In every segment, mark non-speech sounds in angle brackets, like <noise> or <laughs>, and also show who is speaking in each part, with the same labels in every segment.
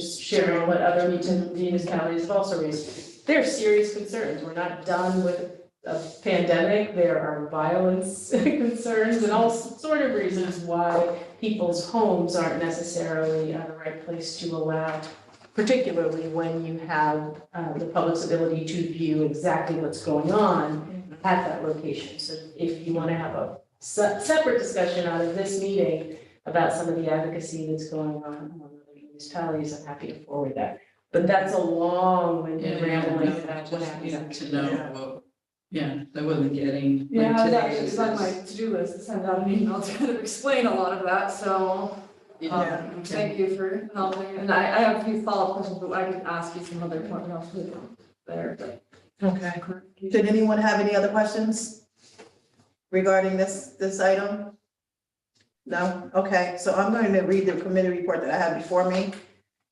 Speaker 1: just sharing what other region municipalities have also raised. There are serious concerns. We're not done with a pandemic. There are violence <laughs> concerns and all sort of reasons why people's homes aren't necessarily uh, the right place to allow, particularly when you have uh, the public's ability to view exactly what's going on
Speaker 2: Mm-hmm.
Speaker 1: at that location. So if you want to have a se- separate discussion out of this meeting, about some of the advocacy that's going on among other municipalities, I'm happy to forward that. But that's a long winded
Speaker 2: Yeah, yeah,
Speaker 1: rambling
Speaker 2: no,
Speaker 1: about what
Speaker 2: just, yeah,
Speaker 1: happens.
Speaker 2: To know, what- yeah, I wasn't getting, like
Speaker 3: Yeah, that
Speaker 2: today
Speaker 3: is
Speaker 2: is.
Speaker 3: on my to-do list, to send out an email <laughs> to kind of explain a lot of that, so,
Speaker 2: Yeah,
Speaker 3: um,
Speaker 2: okay.
Speaker 3: thank you for helping. And I, I have a few follow-up questions, but I can ask you some other point else there, but.
Speaker 4: Okay. Did anyone have any other questions regarding this, this item? No? Okay, so I'm going to read the committee report that I have before me.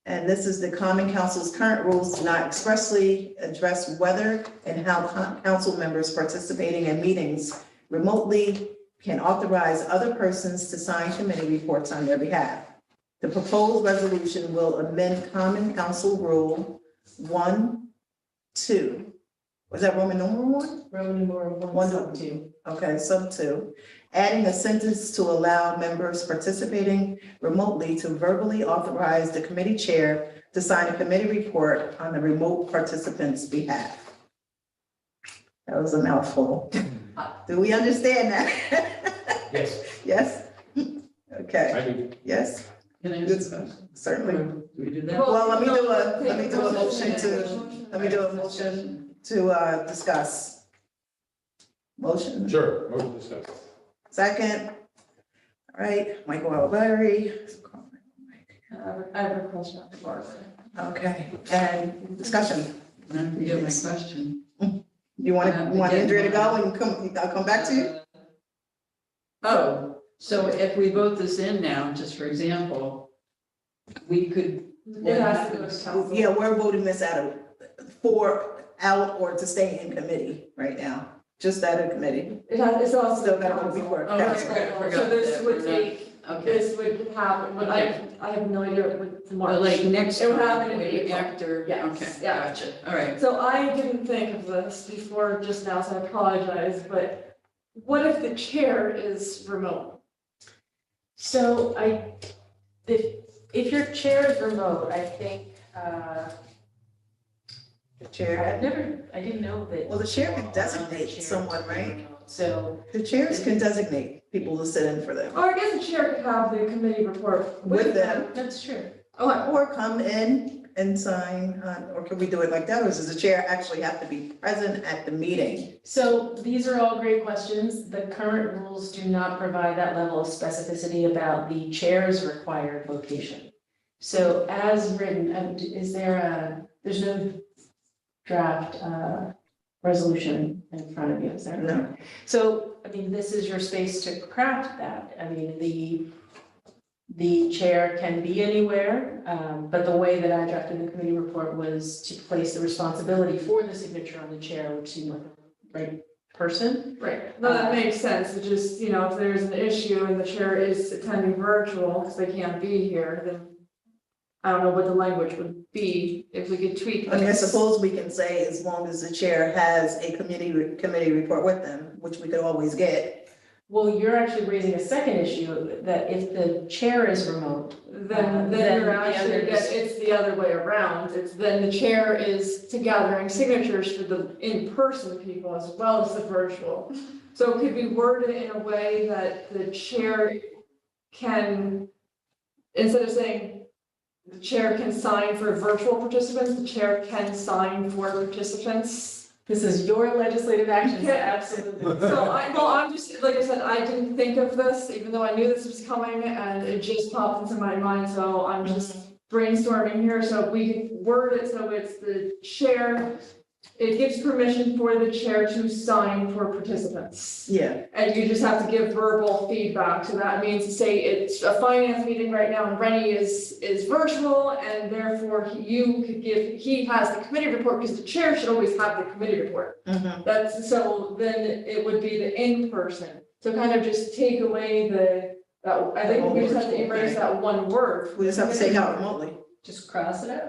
Speaker 4: And this is the common council's current rules do not expressly address whether and how co- council members participating in meetings remotely can authorize other persons to sign committee reports on their behalf. The proposed resolution will amend common council rule one, two, was that Roman numeral one?
Speaker 1: Roman numeral one
Speaker 4: One.
Speaker 1: sub two.
Speaker 4: Okay, sub two. Adding a sentence to allow members participating remotely to verbally authorize the committee chair to sign a committee report on the remote participant's behalf. That was a mouthful. Do we understand that? <laughs>
Speaker 5: Yes,
Speaker 4: Yes? Okay,
Speaker 5: I do.
Speaker 4: yes,
Speaker 2: Can I ask a question?
Speaker 4: certainly.
Speaker 2: Do we do that?
Speaker 4: Well, let me do a- let me do a motion to- Let me do a motion to uh, discuss. Motion.
Speaker 5: Sure, motion to discuss.
Speaker 4: Second. All right, Michael Alberry.
Speaker 3: I have a- I have a question after Barbara.
Speaker 4: Okay, and discussion.
Speaker 2: And I forget my question.
Speaker 4: You want to, you
Speaker 2: Uh,
Speaker 4: want Andrea to go and come, I'll come back to you?
Speaker 2: Oh, so if we vote this in now, just for example, we could,
Speaker 3: It has to go to council.
Speaker 4: Oh, Yeah, we're voting this out of, for, out or to stay in committee right now, just out of committee.
Speaker 3: It has, it's also.
Speaker 4: Still gotta be work.
Speaker 2: Oh,
Speaker 4: that's
Speaker 2: okay.
Speaker 4: right.
Speaker 3: So this would take,
Speaker 2: okay,
Speaker 3: this would happen, but I, I have no idea what March.
Speaker 2: but like next.
Speaker 3: It would happen in
Speaker 2: month, maybe
Speaker 3: April.
Speaker 2: After,
Speaker 3: Yes,
Speaker 2: okay,
Speaker 3: yeah.
Speaker 2: gotcha, all right.
Speaker 3: So I didn't think of this before just now, so I apologize, but what if the chair is remote?
Speaker 1: So I, if, if your chair is remote, I think, uh, I've
Speaker 4: Chair,
Speaker 1: never, I didn't know that.
Speaker 4: well, the chair can
Speaker 1: Chair
Speaker 4: designate
Speaker 1: is
Speaker 4: someone, right?
Speaker 1: remote. So,
Speaker 4: The chairs can designate people to sit in for them,
Speaker 3: Or I guess the chair could have the committee report
Speaker 4: With
Speaker 3: with
Speaker 4: them.
Speaker 3: them.
Speaker 1: that's true.
Speaker 3: Oh,
Speaker 4: or come in and sign, uh, or can we do it like that, or does the chair actually have to be present at the meeting?
Speaker 1: So these are all great questions. The current rules do not provide that level of specificity about the chair's required location. So as written, um, d- is there a, there's no draft uh, resolution in front of you, is there?
Speaker 4: No.
Speaker 1: So, I mean, this is your space to craft that. I mean, the, the chair can be anywhere, um, but the way that I drafted the committee report was to place the responsibility for the signature on the chair, which seemed like the right person.
Speaker 3: right, no, that makes sense, it just, you know, if there's an issue and the chair is attending virtual, because they can't be here, then I don't know what the language would be, if we could tweak
Speaker 4: I mean, I
Speaker 3: this.
Speaker 4: suppose we can say as long as the chair has a committee, committee report with them, which we could always get.
Speaker 1: Well, you're actually raising a second issue, that if the chair is remote,
Speaker 3: Then,
Speaker 1: Uh, Then
Speaker 3: then
Speaker 1: the
Speaker 3: you're
Speaker 1: other
Speaker 3: actually,
Speaker 1: is-
Speaker 3: that it's the other way around, it's then the chair is to gathering signatures for the in-person people as well as the virtual. So it could be worded in a way that the chair can, instead of saying the chair can sign for virtual participants, the chair can sign for participants.
Speaker 1: this is your legislative action, so absolutely.
Speaker 3: So I, well, I'm just, like I said, I didn't think of this, even though I knew this was coming and it just popped into my mind, so I'm just brainstorming here, so if we could word it so it's the chair. It gives permission for the chair to sign for participants.
Speaker 4: Yeah,
Speaker 3: And you just have to give verbal feedback, so that means say it's a finance meeting right now and Rennie is, is virtual. And therefore you could give, he has the committee report, because the chair should always have the committee report.
Speaker 4: mhm.
Speaker 3: That's, so then it would be the in-person, so kind of just take away the, that, I think we just have to erase that one word.
Speaker 4: we just have to say how remotely.
Speaker 1: just cross it out.